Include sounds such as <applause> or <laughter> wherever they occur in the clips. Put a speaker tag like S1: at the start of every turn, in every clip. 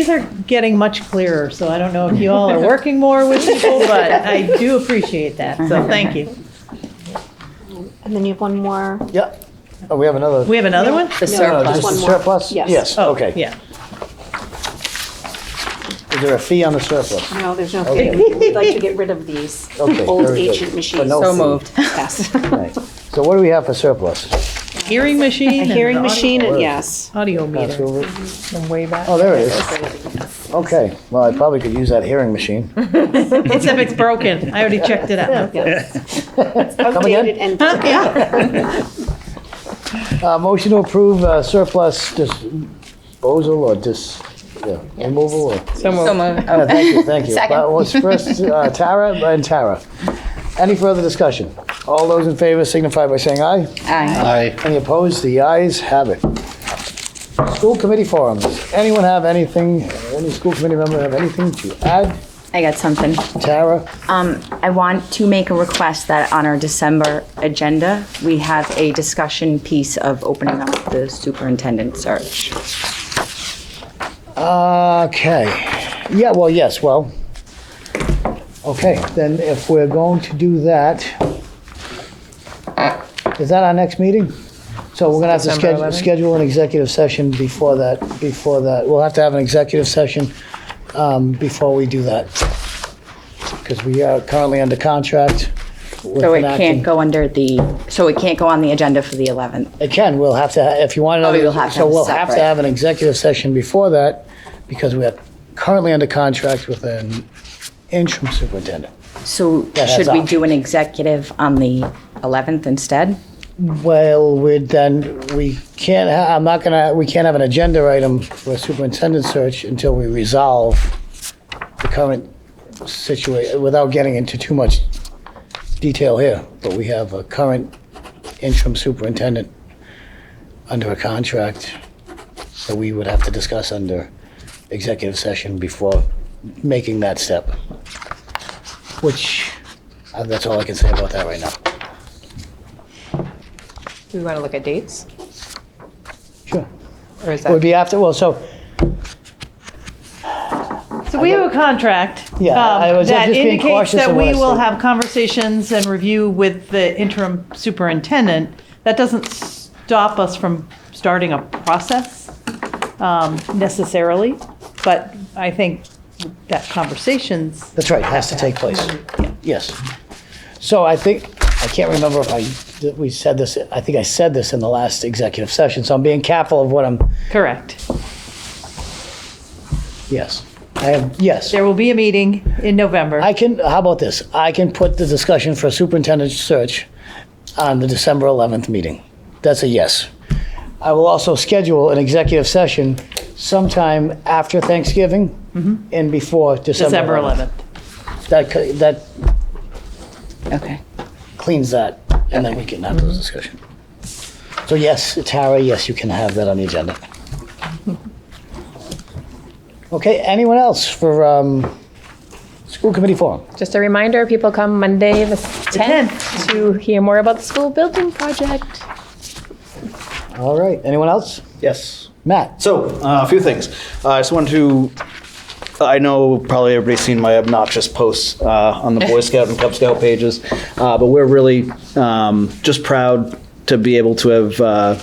S1: These are getting much clearer, so I don't know if you all are working more with people, but I do appreciate that, so thank you.
S2: And then you have one more.
S3: Yeah. Oh, we have another.
S1: We have another one?
S3: No, no,
S4: The surplus.
S3: just the
S2: One more.
S3: surplus?
S2: Yes.
S3: Yes,
S1: Oh,
S3: okay.
S1: Yeah.
S3: Is there a fee on the surplus?
S2: No, there's no
S3: Okay.
S2: fee. We'd like to get rid of these
S3: Okay,
S2: old
S3: very good.
S2: ancient
S3: But
S2: machines.
S3: no
S4: So fee. moved.
S2: Yes.
S3: Right. So what do we have for surplus?
S1: <laughs> Hearing machine.
S2: <laughs> A
S1: and an
S2: hearing
S1: audio-
S2: machine, and yes.
S1: Audio
S3: Pass
S1: meter.
S3: over.
S5: From way back.
S3: Oh, there it is. Okay, well, I probably could use that hearing
S1: <laughs>
S3: machine.
S1: Except it's broken. I already checked it out.
S2: Yes.
S3: Come
S2: Outdated
S3: again?
S2: and
S1: Huh? Yeah.
S3: Uh, motion to approve uh, surplus disposal or dis, yeah, removal or?
S5: So
S4: So
S5: moved.
S4: moved.
S3: Yeah, Thank you, thank you.
S4: Second.
S3: That was first, uh, Tara and Tara. Any further discussion? All those in favor signify by saying aye.
S4: Aye.
S6: Aye.
S3: Any opposed? The ayes have it. School committee forums. Anyone have anything, any school committee member have anything to add?
S4: I got something.
S3: Tara?
S4: Um, I want to make a request that on our December agenda, we have a discussion piece of opening up the superintendent search.
S3: Okay. Yeah, well, yes, well. Okay, then if we're going to do that, is that our next meeting? So we're gonna have to schedule,
S5: December 11th?
S3: schedule an executive session before that, before that. We'll have to have an executive session, um, before we do that. Because we are currently under contract. with
S4: So it
S3: an
S4: can't
S3: acting-
S4: go under the, so it can't go on the agenda for the 11th.
S3: It can, we'll have to, ha- if you want
S4: Oh,
S3: another.
S4: you'll have to
S3: So
S4: have
S3: we'll have to
S4: separate.
S3: have an executive session before that, because we are currently under contract with an interim superintendent.
S4: So
S3: Yeah, that's
S4: should we
S3: option.
S4: do an executive on the 11th instead?
S3: Well, we then, we can't, ha- I'm not gonna, we can't have an agenda item for a superintendent search until we resolve the current situation, without getting into too much detail here, but we have a current interim superintendent under a contract that we would have to discuss under executive session before making that step. Which, uh, that's all I can say about that right now.
S5: Do we want to look at dates?
S3: Sure.
S5: Or is
S3: It would
S5: that?
S3: be after, well, so,
S1: So we have a contract.
S3: Yeah,
S1: um,
S3: I was just being cautious
S1: That
S3: of what I
S1: indicates that we will
S3: said.
S1: have conversations and review with the interim superintendent. That doesn't stop us from starting a process um, necessarily, but I think that conversations,
S3: that's right, it has to take place. Yes. So I think, I can't remember if I, that we said this, I think I said this in the last executive session, so I'm being careful of what I'm,
S1: correct.
S3: yes. I have, yes.
S1: There will be a meeting in November.
S3: I can, how about this? I can put the discussion for superintendent search on the December 11th meeting. That's a yes. I will also schedule an executive session sometime after Thanksgiving
S5: Mm-hmm.
S3: and before December
S1: December
S3: 11th.
S1: 11th.
S3: That, cou- that
S4: Okay.
S3: cleans that, and then we can have those discussion. So yes, Tara, yes, you can have that on the agenda. Okay, anyone else for, um, school committee forum?
S5: Just a reminder, people come Monday, the
S1: 10th.
S5: 10th, to hear more about the school building project.
S3: All right, anyone else?
S6: Yes.
S3: Matt?
S6: So, uh, a few things. Uh, I just wanted to. I know probably everybody's seen my obnoxious posts uh, on the Boy Scout and Cub Scout pages, uh, but we're really um, just proud to be able to have uh,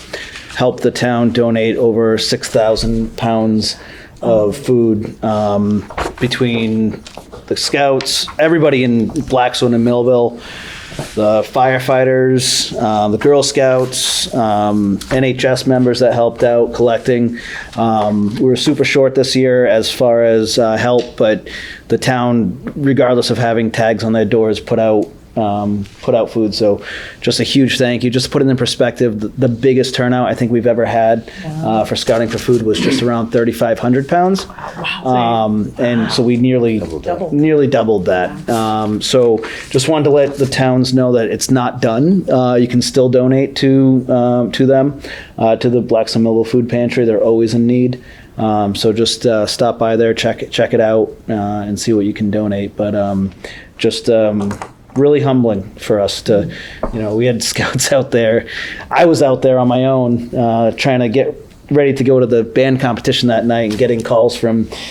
S6: helped the town donate over 6,000 pounds of food um, between the Scouts, everybody in Blackstone and Millville the uh, firefighters, uh, the Girl Scouts, um, NHS members that helped out collecting. Um, we were super short this year as far as uh, help, but the town, regardless of having tags on their doors, put out. Um, put out food, so just a huge thank you. Just to put it in perspective, the, the biggest turnout I think we've ever had uh, for scouting for food was just around 3,500 pounds, um, and so we nearly nearly doubled that. Um, so just wanted to let the towns know that it's not done. Uh, you can still donate to um, to them uh, to the Blackstone Millville Food Pantry. They're always in need. Um, so just uh, stop by there, check it, check it out, uh, and see what you can donate. But um, just um, really humbling for us to, you know, we had <laughs> scouts out there. I was out there on my own uh, trying to get ready to go to the band competition that night and getting calls from